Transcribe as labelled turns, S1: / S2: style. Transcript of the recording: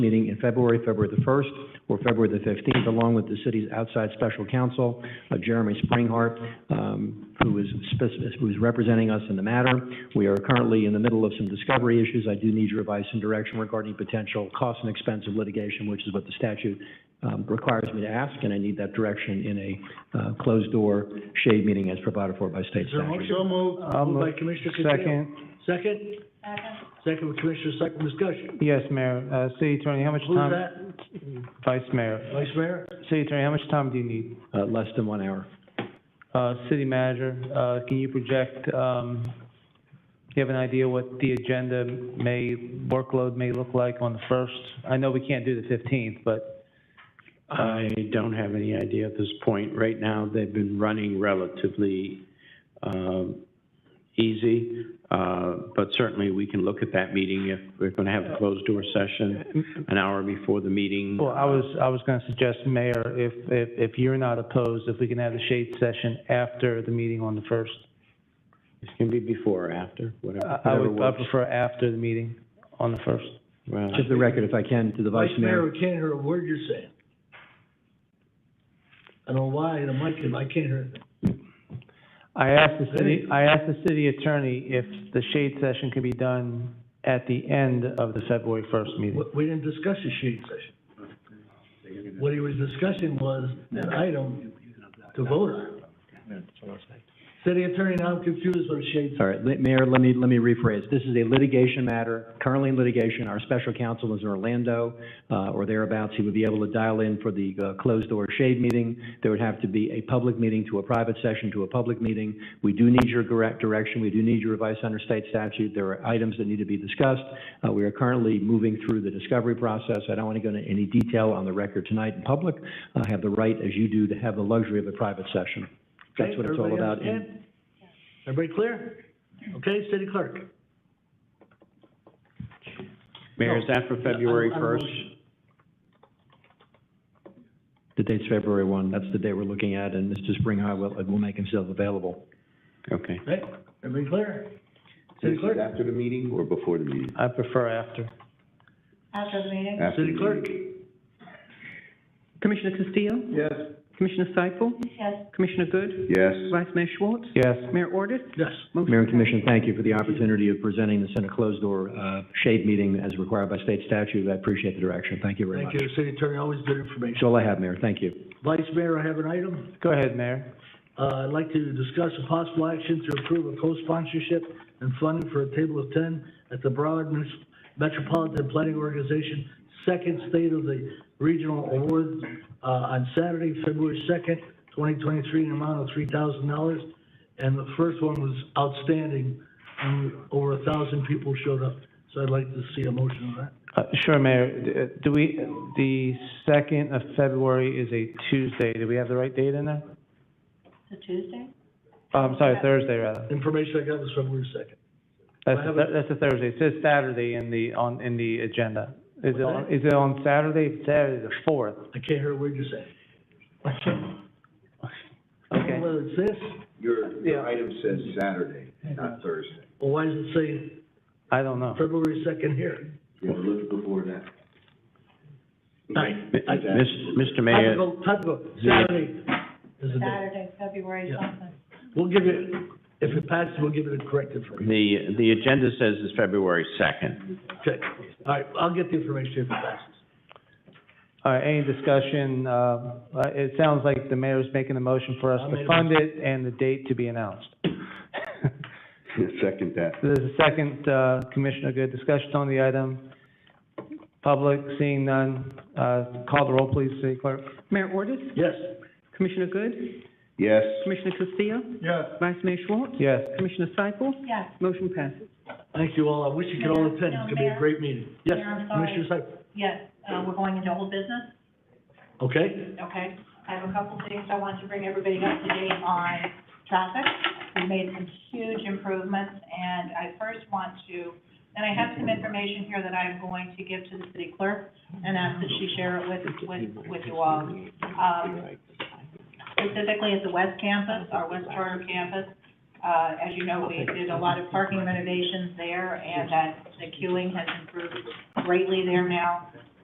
S1: meeting in February, February the 1st or February the 15th, along with the city's outside special counsel, uh, Jeremy Springhart, um, who is, spec- who is representing us in the matter. We are currently in the middle of some discovery issues. I do need your advice and direction regarding potential cost and expense of litigation, which is what the statute um, requires me to ask, and I need that direction in a uh, closed-door shade meeting as provided for by state
S2: Is there a motion?
S1: statute.
S2: So moved.
S3: I'll
S2: Moved by
S3: move.
S2: Commissioner Castile.
S3: Second,
S2: Second? Second by Commissioner Cycle discussion.
S3: yes, Mayor, uh, City Attorney, how much
S2: Who's
S3: time?
S2: that?
S3: Vice Mayor,
S2: Vice Mayor?
S3: City Attorney, how much time do you need?
S1: Uh, Less than one hour.
S3: Uh, City Manager, uh, can you project, um, do you have an idea what the agenda may, workload may look like on the first? I know we can't do the fifteenth, but,
S4: I don't have any idea at this point. Right now, they've been running relatively um, easy, uh, but certainly we can look at that meeting if we're going to have a closed-door session an hour before the meeting.
S3: well, I was, I was gonna suggest, Mayor, if, if, if you're not opposed, if we can have the shade session after the meeting on the first.
S4: It can be before or after, whatever.
S3: I, I would, I
S4: whatever works.
S3: prefer after the meeting on the first.
S4: Well,
S1: Just the record, if I can, to the vice mayor.
S2: I can't hear a word you're saying. I don't know why, the mic, I can't hear.
S3: I asked the city, I asked the city attorney if the shade session could be done at the end of the February first meeting.
S2: We, we didn't discuss the shade session. What he was discussing was an item to vote on. City attorney, now I'm confused with the shade.
S1: All right, let- Mayor, let me, let me rephrase. This is a litigation matter, currently in litigation. Our special counsel is in Orlando, uh, or thereabouts. He would be able to dial in for the uh, closed-door shade meeting. There would have to be a public meeting to a private session to a public meeting. We do need your correct direction. We do need your advice under state statute. There are items that need to be discussed. Uh, we are currently moving through the discovery process. I don't want to go into any detail on the record tonight in public. I have the right, as you do, to have the luxury of a private session. That's what it's all about.
S2: Everybody
S1: And-
S2: understand? Everybody clear? Okay, city clerk?
S4: Mayor, is that for February
S2: I- I- I
S4: 1st?
S2: motion.
S1: The date's February 1, that's the day we're looking at, and Mr. Springhai will, will make himself available.
S4: Okay.
S2: Okay, everybody clear? City clerk?
S5: After the meeting or before the meeting?
S3: I prefer after.
S6: After the meeting?
S5: After the
S2: City clerk?
S7: Commissioner Castillo?
S2: Yes.
S7: Commissioner Seifel?
S6: Yes.
S7: Commissioner Good?
S5: Yes.
S7: Vice Mayor Schwartz?
S3: Yes,
S7: Mayor Ordus?
S2: Yes.
S7: Motion
S1: Mayor
S7: carries.
S1: and Commission, thank you for the opportunity of presenting this in a closed-door, uh, shade meeting as required by state statute. I appreciate the direction, thank you very
S2: Thank
S1: much.
S2: you, city attorney, always good information.
S1: That's all I have, Mayor, thank you.
S2: Vice Mayor, I have an item.
S3: go ahead, Mayor.
S2: Uh, I'd like to discuss a possible action to approve a co-sponsorship and funding for a table of ten at the Broward Mis- Metropolitan Planning Organization Second State of the Regional Awards, uh, on Saturday, February second, twenty twenty-three, an amount of three thousand dollars. And the first one was outstanding, and over a thousand people showed up. So I'd like to see a motion on that.
S3: Uh, sure, Mayor, D- uh, do we, the second of February is a Tuesday, do we have the right date in there?
S6: It's a Tuesday?
S3: Oh, I'm sorry, Thursday rather.
S2: Information I got was February second.
S3: That's,
S2: I
S3: a
S2: have
S3: Thur- that's a Thursday, it says Saturday in the, on, in the agenda. Is it, on- is it on Saturday, Saturday the fourth?
S2: I can't hear a word you're saying.
S3: Okay.
S2: Whether it's this,
S5: Your, your item says Saturday, not Thursday.
S2: or why does it say
S3: I don't know.
S2: February second here?
S5: You have a little before that.
S2: Right.
S4: Mis- Mr. Mayor,
S2: Typical, typical, Saturday is the day.
S6: Saturday, February
S2: Yeah.
S6: something.
S2: We'll give you, if it passes, we'll give it a correct information.
S4: the, the agenda says it's February 2nd.
S2: Okay, all right, I'll get the information if it passes.
S3: All right, any discussion, uh, uh, it sounds like the mayor's making a motion for us
S2: I made
S3: to
S2: a
S3: fund it and the date to be announced.
S5: Second that.
S3: There's a second, uh, Commissioner Good, discussion on the item. Public, seeing none, uh, call the roll, please, City Clerk.
S7: Mayor Ordus?
S2: Yes?
S7: Commissioner Good?
S5: Yes.
S7: Commissioner Castillo?
S2: Yes.
S7: Vice Mayor Schwartz?
S3: Yes,
S7: Commissioner Seifel?
S6: Yes.
S7: Motion passes.
S2: Thank you all, I wish you could all attend, it's gonna be a great meeting. Yes,
S6: Mayor, I'm sorry.
S2: Commissioner Cyprys,
S6: Yes, uh, we're going into old business,
S2: okay?
S6: okay? I have a couple things I want to bring everybody up to date on traffic. We made some huge improvements, and I first want to, and I have some information here that I'm going to give to the city clerk and ask that she share it with, with, with you all. Um, specifically at the west campus, our west charter campus. Uh, as you know, we did a lot of parking renovations there, and that, the queuing has improved greatly there now.